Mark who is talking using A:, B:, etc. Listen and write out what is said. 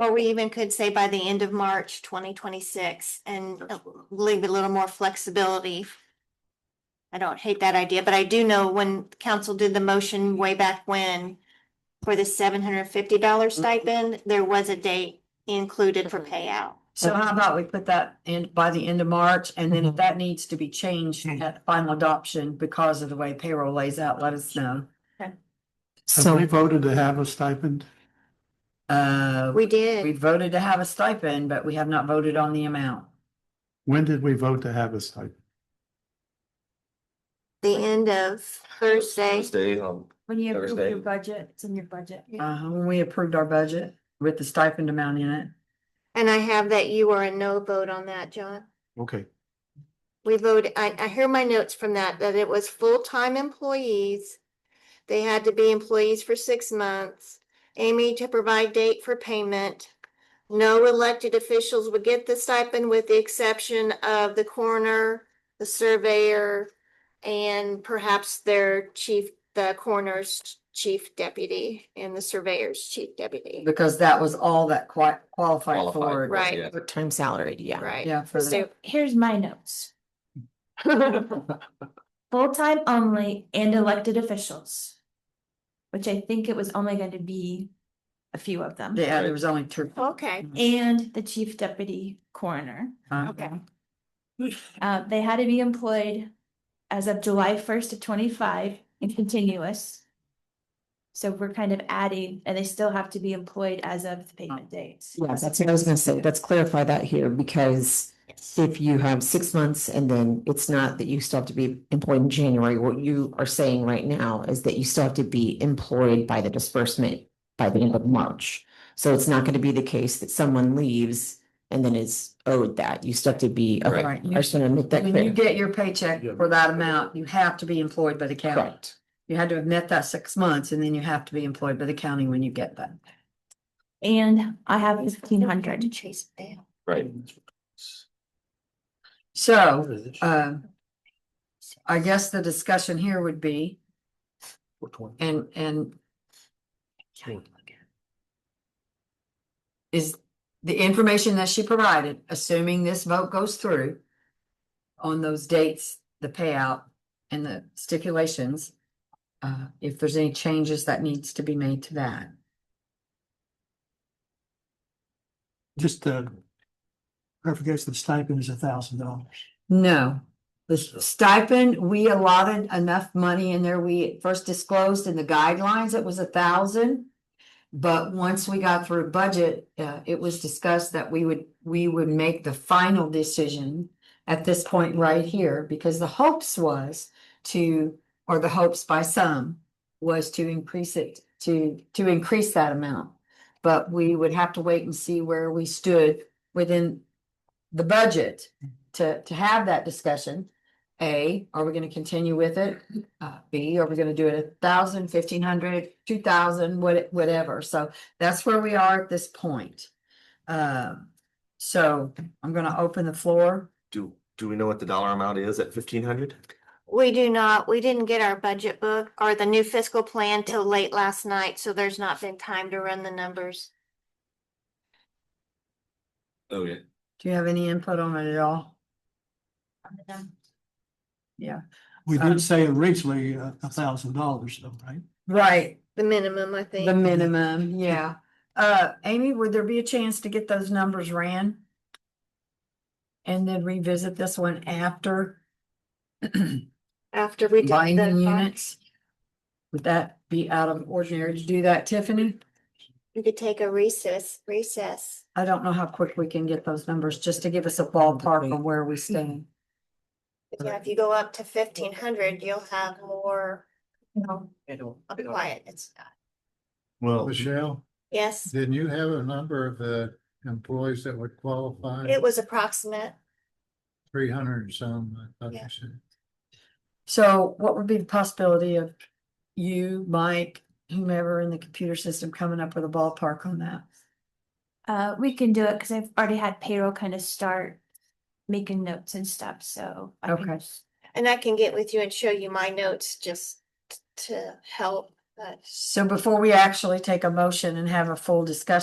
A: Or we even could say by the end of March twenty twenty-six and leave a little more flexibility. I don't hate that idea, but I do know when council did the motion way back when for the seven hundred and fifty dollar stipend, there was a date included for payout.
B: So how about we put that in by the end of March, and
A: Mm-hmm.
B: then if that needs to be changed at final adoption because of the way payroll lays out, let us know.
C: Have we
D: So,
C: voted to have a stipend?
B: Uh,
A: We
B: we
A: did,
B: voted to have a stipend, but we have not voted on the amount.
C: When did we vote to have a stipend?
A: the end of Thursday.
E: Thursday, um,
F: When you approve
E: Thursday.
F: your budget, it's in your budget.
B: Uh, when we approved our budget with the stipend amount in it.
A: And I have that you were a no vote on that, John.
C: Okay,
A: We voted, I, I hear my notes from that, that it was full-time employees. They had to be employees for six months. Amy to provide date for payment. No elected officials would get the stipend with the exception of the coroner, the surveyor, and perhaps their chief, the coroner's chief deputy and the surveyor's chief deputy.
B: Because that was all that qui- qualified for.
E: qualified.
A: Right.
E: yeah.
D: time salary, yeah.
A: Right.
B: Yeah, for
A: So
B: the,
F: Here's my notes. Full-time only and elected officials. Which I think it was only going to be a few of them.
B: yeah, there was only two.
A: Okay,
F: And the chief deputy coroner.
B: Uh,
F: Uh, they had to be employed as of July first of twenty-five and continuous. So we're kind of adding, and they still have to be employed as of the payment dates.
D: Yeah, that's what I was gonna say. Let's clarify that here because if you have six months and then it's not that you still have to be employed in January, what you are saying right now is that you still have to be employed by the disbursement by the end of March. So it's not gonna be the case that someone leaves and then is owed that. You still have to be, okay,
B: Right.
D: I just wanna make that
B: When you
D: clear.
B: get your paycheck for that amount, you have to be employed by the county.
D: Correct.
B: You had to have met that six months and then you have to be employed by the county when you get that.
F: And I have fifteen hundred.
E: Right.
B: So, uh, I guess the discussion here would be, and, and is the information that she provided, assuming this vote goes through on those dates, the payout and the stipulations, uh, if there's any changes that needs to be made to that.
G: Just uh clarification, the stipend is a thousand dollars.
B: No, the stipend, we allotted enough money in there. We first disclosed in the guidelines, it was a thousand. But once we got through budget, uh, it was discussed that we would, we would make the final decision at this point right here, because the hopes was to, or the hopes by some was to increase it, to, to increase that amount. But we would have to wait and see where we stood within the budget to, to have that discussion. A, are we gonna continue with it? Uh, B, are we gonna do it a thousand, fifteen hundred, two thousand, what, whatever? So that's where we are at this point. Um, so I'm gonna open the floor.
E: Do, do we know what the dollar amount is at fifteen hundred?
A: we do not, we didn't get our budget book or the new fiscal plan till late last night, so there's not been time to run the numbers.
E: Oh, yeah.
B: Do you have any input on it at all?
G: We
B: Um,
G: did say originally uh, a thousand dollars though, right?
B: Right,
A: The minimum, I think.
B: the minimum, yeah. Uh, Amy, would there be a chance to get those numbers ran? And then revisit this one after
A: After we did
B: binding
A: the,
B: units? Would that be out of ordinary to do that, Tiffany?
A: we could take a recess, recess.
B: I don't know how quick we can get those numbers, just to give us a ballpark of where we stand.
A: Yeah, if you go up to fifteen hundred, you'll have more, you know, of quiet. It's,
H: Well,
C: Michelle,
A: yes,
C: didn't you have a number of the employees that would qualify?
A: it was approximate.
C: Three hundred and some, I thought
A: Yeah.
C: you said.
B: So what would be the possibility of you, Mike, whomever in the computer system coming up with a ballpark on that?
F: Uh, we can do it because I've already had payroll kind of start making notes and stuff, so. I can
B: Okay.
F: just-
A: And I can get with you and show you my notes just t- to help, but.
B: So before we actually take a motion and have a full discussion